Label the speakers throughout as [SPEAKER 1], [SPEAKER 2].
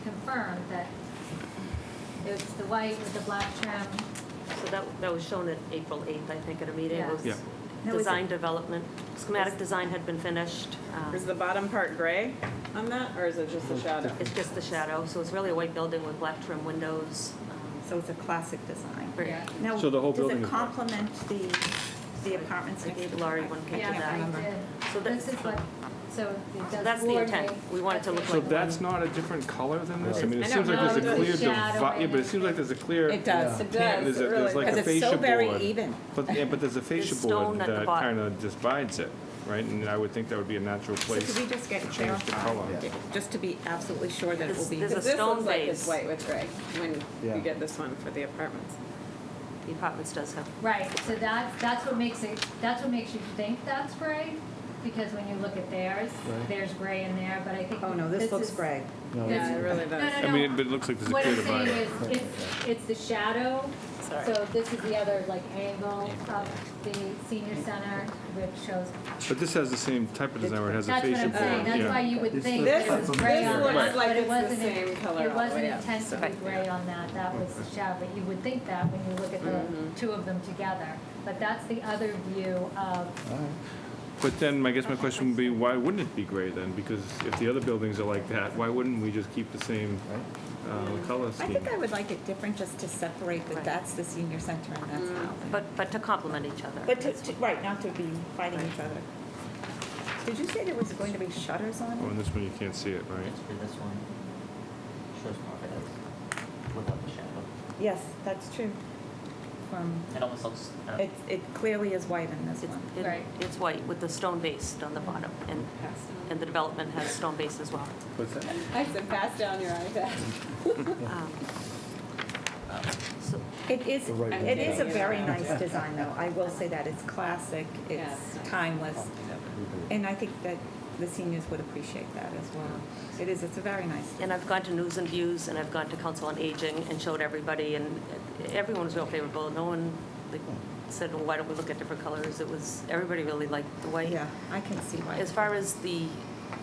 [SPEAKER 1] confirm that it's the white with the black trim.
[SPEAKER 2] So that, that was shown at April 8th, I think, at a meeting. It
[SPEAKER 1] Yeah.
[SPEAKER 2] was
[SPEAKER 3] Yeah.
[SPEAKER 1] Now, is
[SPEAKER 2] Design
[SPEAKER 1] it-
[SPEAKER 2] development, schematic design had been finished. um,
[SPEAKER 4] Is the bottom part gray on that, or is it just a shadow?
[SPEAKER 2] It's just the shadow, so it's really a white building with black trim windows. um,
[SPEAKER 5] So it's a classic design.
[SPEAKER 2] very-
[SPEAKER 1] Yeah.
[SPEAKER 5] Now,
[SPEAKER 3] So the whole building
[SPEAKER 5] Does
[SPEAKER 3] is
[SPEAKER 5] it
[SPEAKER 3] black.
[SPEAKER 5] complement the, the apartments?
[SPEAKER 2] I
[SPEAKER 5] that
[SPEAKER 2] think
[SPEAKER 5] they-
[SPEAKER 2] Laurie went into
[SPEAKER 1] Yeah, I
[SPEAKER 2] that.
[SPEAKER 1] did.
[SPEAKER 2] So that's-
[SPEAKER 1] This is what, so it does
[SPEAKER 2] that's the intent.
[SPEAKER 1] coordinate.
[SPEAKER 2] We want it to
[SPEAKER 1] That's
[SPEAKER 2] look
[SPEAKER 3] So
[SPEAKER 1] the-
[SPEAKER 2] like
[SPEAKER 3] that's not a different color than this? I mean, it
[SPEAKER 4] I
[SPEAKER 3] seems
[SPEAKER 4] don't
[SPEAKER 3] like there's a
[SPEAKER 4] know.
[SPEAKER 3] clear
[SPEAKER 1] It's a shadow
[SPEAKER 3] divide, yeah, but it seems like there's a clear.
[SPEAKER 5] It does.
[SPEAKER 3] tan-
[SPEAKER 4] It does,
[SPEAKER 3] There's a,
[SPEAKER 4] it
[SPEAKER 3] there's like
[SPEAKER 4] really does.
[SPEAKER 3] a
[SPEAKER 5] Because it's
[SPEAKER 3] fascia
[SPEAKER 5] so
[SPEAKER 3] board.
[SPEAKER 5] very even.
[SPEAKER 3] But, yeah, but there's a fascia
[SPEAKER 2] stone
[SPEAKER 3] board
[SPEAKER 2] at the
[SPEAKER 3] that
[SPEAKER 2] bottom.
[SPEAKER 3] kind of divides it, right? And I would think that would be a natural
[SPEAKER 5] So
[SPEAKER 3] place
[SPEAKER 5] could we
[SPEAKER 3] to
[SPEAKER 5] just get
[SPEAKER 3] change the
[SPEAKER 5] clarified,
[SPEAKER 3] color.
[SPEAKER 5] just to be absolutely sure that it will
[SPEAKER 2] This-
[SPEAKER 5] be?
[SPEAKER 2] this
[SPEAKER 4] Because
[SPEAKER 2] is a
[SPEAKER 4] this
[SPEAKER 2] stone
[SPEAKER 4] looks like it's
[SPEAKER 2] base.
[SPEAKER 4] white with gray, when
[SPEAKER 6] Yeah.
[SPEAKER 4] you get this one for the apartments.
[SPEAKER 2] The apartments does have,
[SPEAKER 1] Right, so that's, that's what makes it, that's what makes you think that's gray, because when you look at theirs,
[SPEAKER 6] Right.
[SPEAKER 1] there's gray in there, but I think.
[SPEAKER 5] Oh, no, this looks
[SPEAKER 1] is-
[SPEAKER 5] gray.
[SPEAKER 6] No,
[SPEAKER 1] Yeah.
[SPEAKER 4] Yeah, it really
[SPEAKER 1] No,
[SPEAKER 4] does.
[SPEAKER 1] no,
[SPEAKER 3] I
[SPEAKER 1] no.
[SPEAKER 3] mean, but it looks like there's a
[SPEAKER 1] What
[SPEAKER 3] clear
[SPEAKER 1] I'm saying
[SPEAKER 3] divide.
[SPEAKER 1] is, it's, it's the shadow,
[SPEAKER 4] Sorry.
[SPEAKER 1] so this is the other like angle of the senior center, which shows.
[SPEAKER 3] But this has the same type of design where it has a
[SPEAKER 1] That's what
[SPEAKER 3] fascia
[SPEAKER 1] I'm
[SPEAKER 3] board,
[SPEAKER 1] saying, that's why
[SPEAKER 3] yeah.
[SPEAKER 1] you would
[SPEAKER 6] This
[SPEAKER 1] think
[SPEAKER 6] looks
[SPEAKER 1] this
[SPEAKER 6] like
[SPEAKER 1] is
[SPEAKER 6] something
[SPEAKER 1] gray
[SPEAKER 4] different.
[SPEAKER 1] on
[SPEAKER 4] This
[SPEAKER 1] that,
[SPEAKER 4] looks like
[SPEAKER 1] but it
[SPEAKER 4] it's the
[SPEAKER 1] wasn't,
[SPEAKER 4] same
[SPEAKER 1] in-
[SPEAKER 4] color all
[SPEAKER 1] it
[SPEAKER 4] the
[SPEAKER 1] wasn't
[SPEAKER 4] way up,
[SPEAKER 1] intended to be
[SPEAKER 2] so-
[SPEAKER 1] gray on that, that was the shadow, but you would think that when you look at
[SPEAKER 4] Mm-hmm.
[SPEAKER 1] the two of them together. But that's the other view of
[SPEAKER 6] all right.
[SPEAKER 3] But then, I guess my question would be, why wouldn't it be gray then? Because if the other buildings are like that, why wouldn't we just keep the same uh, color
[SPEAKER 5] I
[SPEAKER 3] scheme?
[SPEAKER 5] think I would like it different just to separate that that's the senior center and that's housing.
[SPEAKER 2] but, but to complement each other.
[SPEAKER 5] But to, to- right, not to be fighting each other. Did you say there was going to be shutters on
[SPEAKER 3] Oh,
[SPEAKER 5] it?
[SPEAKER 3] and this one, you can't see it, right?
[SPEAKER 7] It's for this one. Shows confidence without the shadow.
[SPEAKER 5] Yes, that's true. From,
[SPEAKER 7] It almost looks. uh,
[SPEAKER 5] it, it clearly is white in this
[SPEAKER 2] It's-
[SPEAKER 5] one.
[SPEAKER 2] it-
[SPEAKER 1] Right.
[SPEAKER 2] It's white with the stone base on the bottom, and, and the development has stone base as well.
[SPEAKER 3] What's that?
[SPEAKER 4] I said, pass down your iPad.
[SPEAKER 2] Um,
[SPEAKER 7] um,
[SPEAKER 2] So
[SPEAKER 5] It is,
[SPEAKER 6] The right
[SPEAKER 5] it is a
[SPEAKER 4] one.
[SPEAKER 5] very nice design though. I will say that, it's classic,
[SPEAKER 4] Yeah,
[SPEAKER 5] it's
[SPEAKER 4] it's nice.
[SPEAKER 5] timeless.
[SPEAKER 6] Mhm.
[SPEAKER 5] And I think that the seniors would appreciate that as well. It is, it's a very nice.
[SPEAKER 2] And I've gone to News and Views, and I've gone to Council on Aging, and showed everybody, and everyone was real favorable. No one like, said, well, why don't we look at different colors? It was, everybody really liked the white.
[SPEAKER 5] Yeah, I can see why.
[SPEAKER 2] As far as the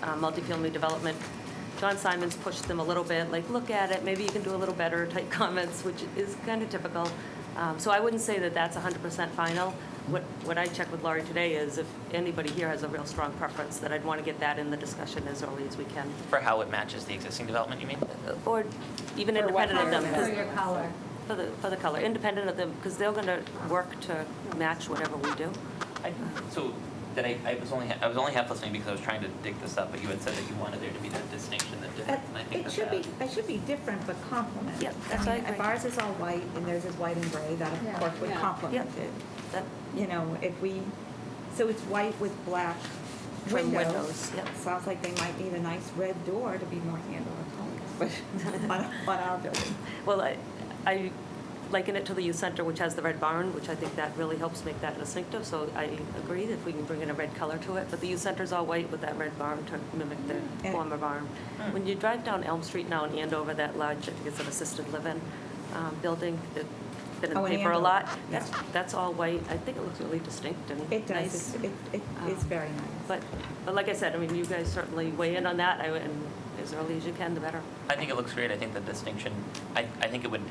[SPEAKER 2] uh, multifamily development, John Simons pushed them a little bit, like, look at it, maybe you can do a little better type comments, which is kind of typical. Um, So I wouldn't say that that's 100% final. What, what I checked with Laurie today is if anybody here has a real strong preference, that I'd want to get that in the discussion as early as we can.
[SPEAKER 7] For how it matches the existing development, you mean?
[SPEAKER 2] Or even
[SPEAKER 5] For what
[SPEAKER 2] independent of them,
[SPEAKER 5] color?
[SPEAKER 2] 'cause-
[SPEAKER 1] for your color.
[SPEAKER 2] for the, for the color, independent of them, because they're going to work to match whatever we do.
[SPEAKER 7] I-
[SPEAKER 5] Mm-hmm.
[SPEAKER 7] So, that I, I was only, ha- I was only half listening because I was trying to dig this up, but you had said that you wanted there to be that distinction that didn't,
[SPEAKER 5] That-
[SPEAKER 7] and I think
[SPEAKER 5] It
[SPEAKER 7] that
[SPEAKER 5] should be,
[SPEAKER 7] that.
[SPEAKER 5] it should be different, but complement.
[SPEAKER 2] Yeah,
[SPEAKER 5] I
[SPEAKER 2] that's what
[SPEAKER 5] mean,
[SPEAKER 2] I
[SPEAKER 5] if
[SPEAKER 2] agree.
[SPEAKER 5] ours is all white and theirs is white and gray, that of
[SPEAKER 1] Yeah.
[SPEAKER 5] course would
[SPEAKER 4] Yeah.
[SPEAKER 5] complement
[SPEAKER 2] Yeah.
[SPEAKER 5] it.
[SPEAKER 2] That-
[SPEAKER 5] You know, if we, so it's white with black
[SPEAKER 2] Trim
[SPEAKER 5] windows.
[SPEAKER 2] windows, yep.
[SPEAKER 5] Sounds like they might need a nice red door to be more handle with colors, on, on our building.
[SPEAKER 2] Well, I, I liken it to the youth center, which has the red barn, which I think that really helps make that distinctive, so I agree if we can bring in a red color to it, but the youth center's all white with that red barn to mimic the
[SPEAKER 5] And-
[SPEAKER 2] former barn.
[SPEAKER 5] Hmm.
[SPEAKER 2] When you drive down Elm Street now in Andover, that large, I think it's an assisted living um, building that's been in
[SPEAKER 5] Oh,
[SPEAKER 2] the
[SPEAKER 5] in
[SPEAKER 2] paper a
[SPEAKER 5] Andover,
[SPEAKER 2] lot,
[SPEAKER 5] yeah.
[SPEAKER 2] that's, that's all white, I think it looks really distinct and nice. Um,
[SPEAKER 5] It does, It's- it, it is very nice.
[SPEAKER 2] But, but like I said, I mean, you guys certainly weigh in on that, I- and as early as you can, the better.
[SPEAKER 7] I think it looks great, I think the distinction, I, I think it would,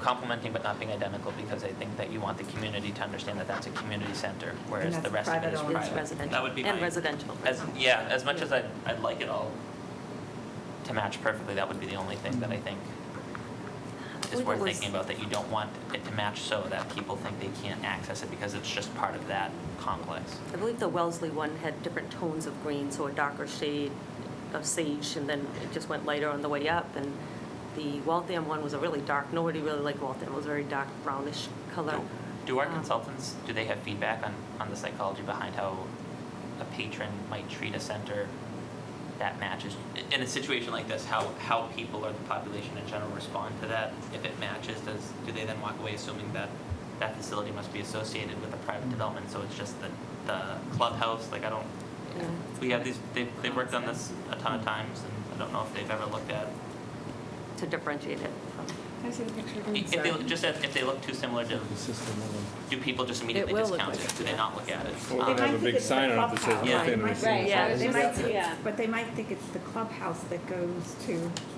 [SPEAKER 7] complementing but not being identical, because I think that you want the community to understand that that's a community center, whereas
[SPEAKER 5] that's
[SPEAKER 7] the rest of it is
[SPEAKER 5] private-owned.
[SPEAKER 7] private.
[SPEAKER 2] It's residential.
[SPEAKER 7] That would be
[SPEAKER 2] And
[SPEAKER 7] my-
[SPEAKER 2] residential.
[SPEAKER 7] As, yeah, as much as I'd, I'd like it all to match perfectly, that would be the only thing that I think is
[SPEAKER 2] Well,
[SPEAKER 7] worth
[SPEAKER 2] that was-
[SPEAKER 7] thinking about, that you don't want it to match so that people think they can't access it because it's just part of that complex.
[SPEAKER 2] I believe the Wellesley one had different tones of green, so a darker shade of sage, and then it just went lighter on the way up. And the Waltham one was a really dark, nobody really liked Waltham, it was a very dark brownish color.
[SPEAKER 7] Do- Do our
[SPEAKER 2] Um,
[SPEAKER 7] consultants, do they have feedback on, on the psychology behind how a patron might treat a center that matches? In a situation like this, how, how people or the population in general respond to that? If it matches, does, do they then walk away assuming that that facility must be associated with a
[SPEAKER 4] Mm-hmm.
[SPEAKER 7] private development? So it's just the, the clubhouse, like I don't,
[SPEAKER 2] Yeah.
[SPEAKER 7] we have these, they've, they've worked on this a ton
[SPEAKER 4] Mm-hmm.
[SPEAKER 7] of times and I don't know if they've ever looked at
[SPEAKER 2] To differentiate it from,
[SPEAKER 4] I see the picture
[SPEAKER 7] If they, just if if they look too similar to,
[SPEAKER 6] The system of them.
[SPEAKER 7] do people just immediately
[SPEAKER 4] will look
[SPEAKER 7] discount
[SPEAKER 4] like
[SPEAKER 7] it? Do they not look at it? Um,
[SPEAKER 3] Or
[SPEAKER 5] They
[SPEAKER 3] they
[SPEAKER 5] might
[SPEAKER 3] have a
[SPEAKER 5] think
[SPEAKER 3] big
[SPEAKER 5] it's the
[SPEAKER 3] sign on it that says
[SPEAKER 5] clubhouse.
[SPEAKER 7] Yeah.
[SPEAKER 3] nothing
[SPEAKER 5] They
[SPEAKER 3] or
[SPEAKER 5] might-
[SPEAKER 3] something.
[SPEAKER 2] Yeah.
[SPEAKER 5] They might,
[SPEAKER 4] Yeah.
[SPEAKER 5] but they might think it's the clubhouse that goes to